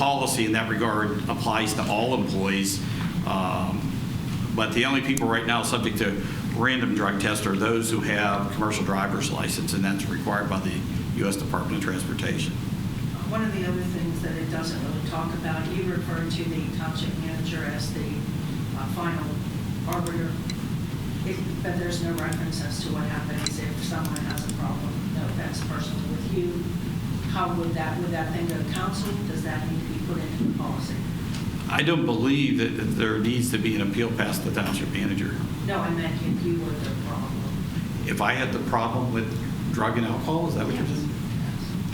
policy in that regard applies to all employees. Um, But the only people right now subject to random drug tests are those who have commercial driver's license, and that's required by the U.S. Department of Transportation. One of the other things that it doesn't really talk about, you refer to the township manager as the uh, final arbiter, It- but there's no reference as to what happens if someone has a problem, no offense personally with you. How would that, would that then go to council? Does that need to be put into the policy? I don't believe that that there needs to be an appeal past the township manager. No, I meant if you were the problem. If I had the problem with drug and alcohol, is that what you're saying?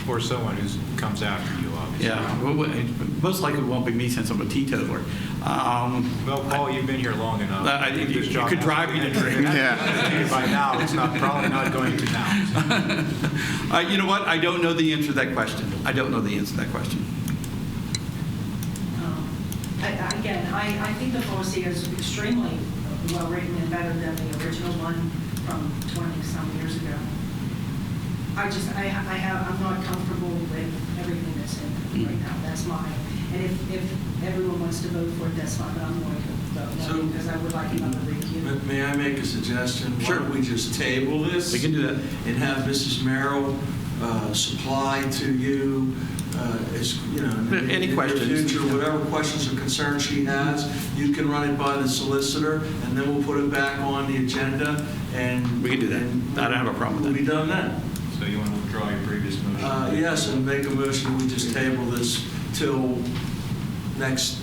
Or someone who comes after you, obviously. Yeah, well, well, it- most likely it won't be me since I'm a teetotaler. Um, Well, Paul, you've been here long enough. Uh, I- This you job could has drive me to been- drink. Yeah. By now, it's not, probably not going to now. uh, You know what? I don't know the answer to that question. I don't know the answer to that question. Um, I- I- Again, I, I think the policy is extremely well-written and better than the original one from 20-some years ago. I just, I, I have, I'm not comfortable with everything that's in it right now, that's mine. And if, if everyone wants to vote for it, that's fine, but I'm going to vote no, So- because I would like another review. May- May I make a suggestion? Sure. Why don't we just table this? We can do that. And have Mrs. Merrill uh, supply to you, uh, as, you know... in the- Any in the questions? future, whatever questions or concerns she has, you can run it by the solicitor, and then we'll put it back on the agenda, and... We can do that. and I don't have a problem with We'll that. be done then. So you want to withdraw your previous motion? Uh, Yes, and make a motion, we just table this till next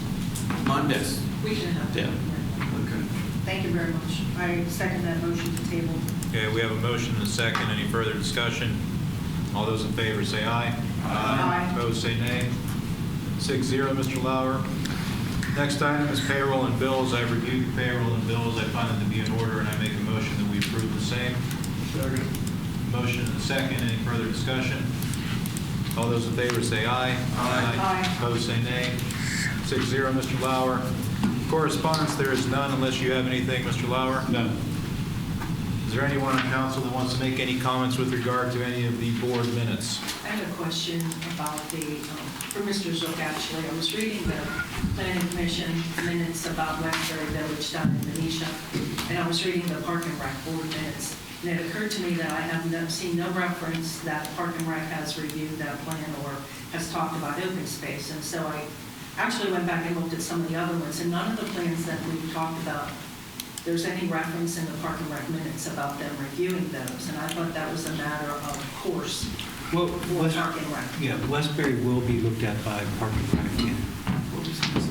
Monday. Yes. We can have. Yeah. Okay. Thank you very much. I second that motion to table. Okay, we have a motion and a second. Any further discussion? All those in favor say aye. Aye. Opposed, say nay. Six zero, Mr. Lauer. Next item is payroll and bills. I've reviewed the payroll and bills. I find them to be in order, and I make a motion that we approve the same. Motion and a second. Any further discussion? All those in favor say aye. Aye. Opposed, say nay. Six zero, Mr. Lauer. Correspondence, there is none unless you have anything, Mr. Lauer. No. Is there anyone on council that wants to make any comments with regard to any of the board minutes? I have a question about the, um, for Mr. Zook, actually. I was reading the planning commission minutes about Westbury Village down in Venetia, and I was reading the park and rec board minutes, and it occurred to me that I have no- seen no reference that park and rec has reviewed that plan or has talked about open space. And so I actually went back and looked at some of the other ones, and none of the plans that we talked about, there's any reference in the park and rec minutes about them reviewing those. And I thought that was a matter of course Well, for West, park and rec. yeah, Westbury will be looked at by Park and Rec. yeah.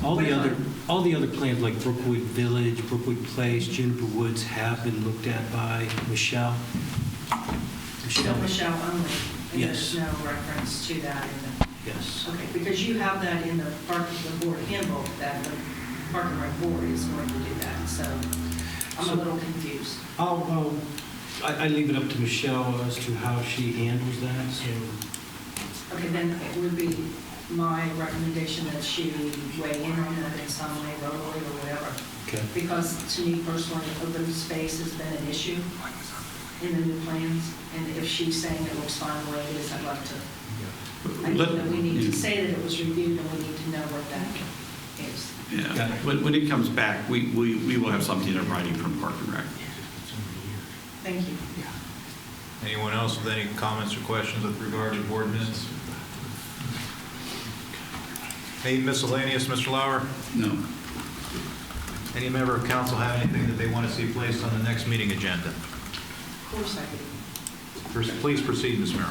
All the other, all the other plans like Brookwood Village, Brookwood Place, Juniper Woods have been looked at by Michelle. So Michelle only? and Yes. There's no reference to that in the, Yes. okay, because you have that in the park, the board handbook, that the park and rec board is going to do that, so I'm a little confused. I'll, I'll- I, I leave it up to Michelle as to how she handles that, so. Okay, then it would be my recommendation that she weigh in on that in some way, verbally or whatever, Okay. because to me personally, open space has been an issue in the new plans, and if she's saying it looks fine the way it is, I'd like to I think that we need to say that it was reviewed, and we need to know what that is. Yeah. When when it comes back, we we we will have something in writing from Park and Rec. Thank you. Anyone else with any comments or questions with regard to board minutes? Any miscellaneous, Mr. Lauer? No. Any member of council have anything that they want to see placed on the next meeting agenda? Of course I do. Please proceed, Ms. Merrill.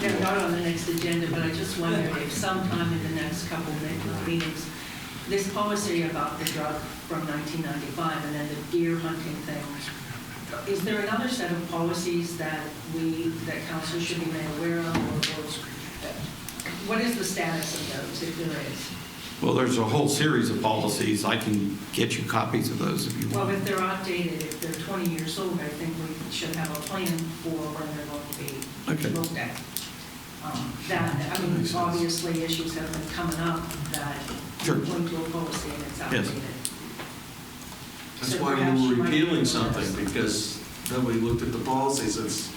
They're not on the next agenda, but I just wondered if sometime in the next couple of meetings, this policy about the drug from 1995 and then the deer hunting thing, is there another set of policies that we, that council should be made aware of? or- or What is the status of those, if there is? Well, there's a whole series of policies. I can get you copies of those if you Well, want. if they're outdated, if they're 20 years old, I think we should have a plan for when they're going to Okay. be looked at. Um, That, I mean, obviously, issues have been coming up that Sure. point to a policy and it's Yes. outdated. That's So why perhaps we you were might- repealing something, because nobody looked at the policy since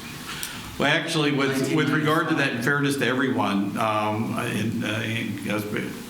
Well, actually, with with regard to that, in fairness to everyone, um, and, uh, and as-